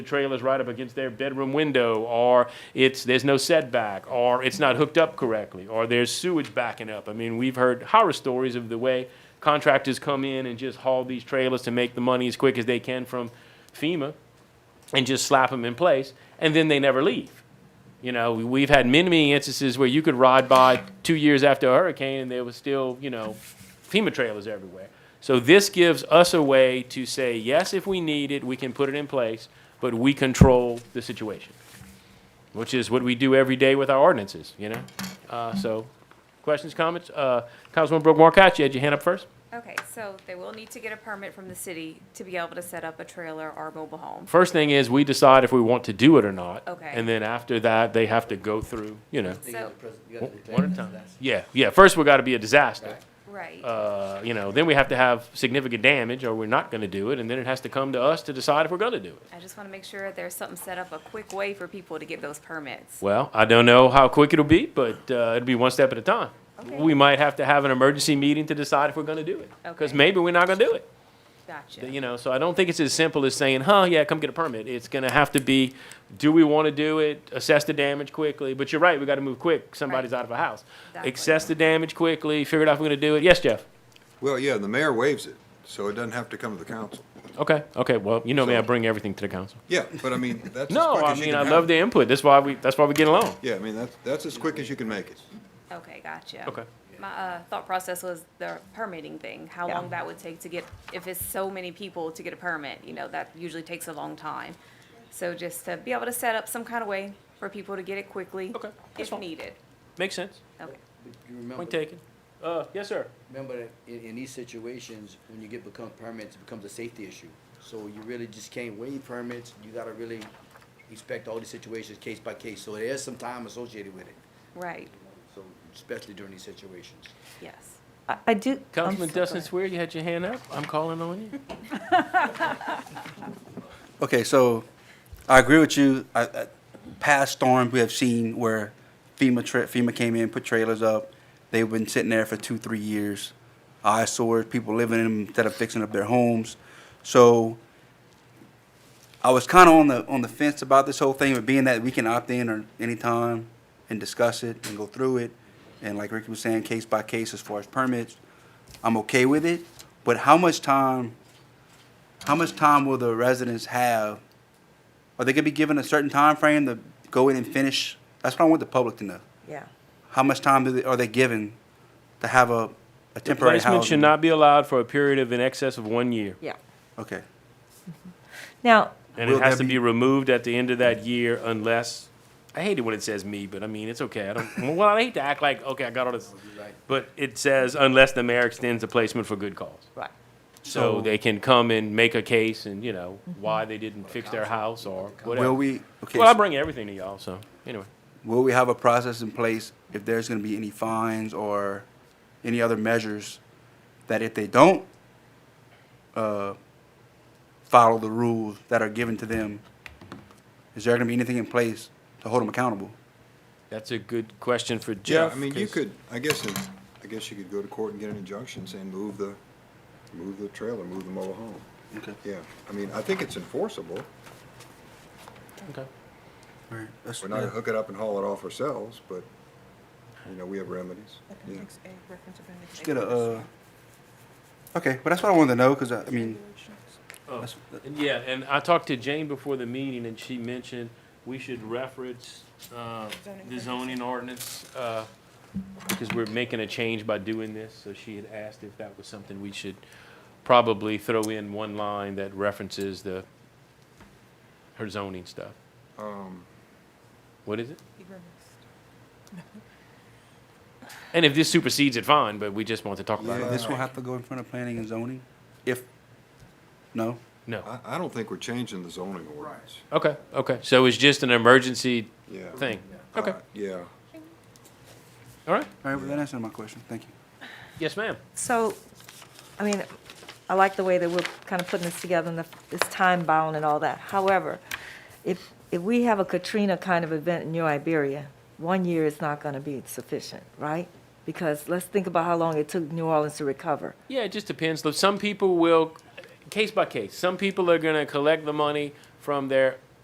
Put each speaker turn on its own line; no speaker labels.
the trailer's right up against their bedroom window, or it's, there's no setback, or it's not hooked up correctly, or there's sewage backing up. I mean, we've heard horror stories of the way contractors come in and just haul these trailers to make the money as quick as they can from FEMA and just slap them in place, and then they never leave. You know, we- we've had many, many instances where you could ride by two years after a hurricane and there was still, you know, FEMA trailers everywhere. So this gives us a way to say, yes, if we need it, we can put it in place, but we control the situation, which is what we do every day with our ordinances, you know? Uh, so, questions, comments? Uh, Councilwoman Brooke Markcott, you had your hand up first?
Okay, so they will need to get a permit from the city to be able to set up a trailer or mobile home.
First thing is, we decide if we want to do it or not.
Okay.
And then after that, they have to go through, you know,
So-
one at a time. Yeah, yeah, first we gotta be a disaster.
Right.
Right.
Uh, you know, then we have to have significant damage, or we're not gonna do it, and then it has to come to us to decide if we're gonna do it.
I just want to make sure there's something set up, a quick way for people to get those permits.
Well, I don't know how quick it'll be, but uh, it'll be one step at a time.
Okay.
We might have to have an emergency meeting to decide if we're going to do it. Because
Okay.
maybe we're not going to do it.
Gotcha.
You know, so I don't think it's as simple as saying, huh, yeah, come get a permit. It's going to have to be, do we want to do it? Assess the damage quickly. But you're right, we got to move quick. Somebody's
Right.
out of a house.
Exactly.
Assess the damage quickly, figure out if we're going to do it. Yes, Jeff?
Well, yeah, the mayor waives it, so it doesn't have to come to the council.
Okay, okay. Well, you know me, I
So-
bring everything to the council.
Yeah, but I mean, that's as
No,
quick
I
as you
mean,
can
I
have
love
it.
the input. That's why we, that's why we get along.
Yeah, I mean, that's, that's as quick as you can make it.
Okay, gotcha.
Okay.
My, uh, thought process was the permitting thing, how
Yeah.
long that would take to get, if it's so many people to get a permit, you know, that usually takes a long time. So just to be able to set up some kind of way for people to get it quickly.
Okay, that's
If
fine.
needed.
Makes sense.
Okay,
You remember,
Point taken. Uh, yes, sir.
remember that in, in these situations, when you get become permits, it becomes a safety issue. So you really just can't waive permits, you gotta really inspect all these situations case by case, so there's some time associated with it,
right,
so, especially during these situations.
yes.
I- I do. I'm
Councilman
so- go
Dustin
ahead.
Swear, you had your hand up. I'm calling on you.
Okay, so I agree with you. I, I, past storms we have seen where FEMA tra- FEMA came in, put trailers up. They've been sitting there for two, three years. Eyesores, people living in them instead of fixing up their homes. So I was kind of on the on the fence about this whole thing, but being that we can opt in or anytime and discuss it and go through it, and like Ricky was saying, case by case as far as permits, I'm okay with it. But how much time? How much time will the residents have? Are they gonna be given a certain time frame to go in and finish? That's what I want the public to know.
Yeah.
How much time do they, are they given to have a, a temporary housing?
Placement should not be allowed for a period of in excess of one year.
Yeah.
Okay,
Now,
And it
Will
has to
there
be
be-
removed at the end of that year unless, I hate it when it says me, but I mean, it's okay. I don't, well, I hate to act like, okay, I got all this.
Right.
But it says unless the mayor extends the placement for good cause.
right.
So
So-
they can come and make a case and, you know, why they didn't fix their house or
will
whatever.
we, okay,
Well, I
so
bring everything to y'all, so, anyway.
will we have a process in place if there's gonna be any fines or any other measures that if they don't, uh, follow the rules that are given to them, is there gonna be anything in place to hold them accountable?
That's a good question for
Yeah,
Jeff.
I mean, you
'cause-
could, I guess, it- I guess you could go to court and get an injunction saying move the, move the trailer, move the mobile home.
Okay.
Yeah, I mean, I think it's enforceable.
Okay.
All right, that's-
We're not gonna hook it up and haul it off ourselves, but, you know, we have remedies. Yeah.
Just get a, uh, okay, but that's what I wanted to know, because I, I mean,
Oh.
that's,
And Yeah, and I talked to Jane before the meeting, and she mentioned we should reference uh, the zoning ordinance, uh, because we're making a change by doing this, so she had asked if that was something we should probably throw in one line that references the, her zoning stuff.
Um,
What is it? And if this supersedes it, fine, but we just want to talk about
Yeah.
it.
this will have to go in front of planning and zoning, if, no?
No.
I, I don't think we're changing the zoning ordinance.
Okay, okay. So it's just an emergency
Yeah.
thing.
Uh,
Okay,
Yeah.
all right.
All right, well, that answered my question, thank you.
Yes, ma'am.
So, I mean, I like the way that we're kind of putting this together and the- it's time bound and all that. However, if, if we have a Katrina kind of event in New Iberia, one year is not going to be sufficient, right? Because let's think about how long it took New Orleans to recover.
Yeah, it just depends. Look, Some people will, case by case, some people are going to collect the money from their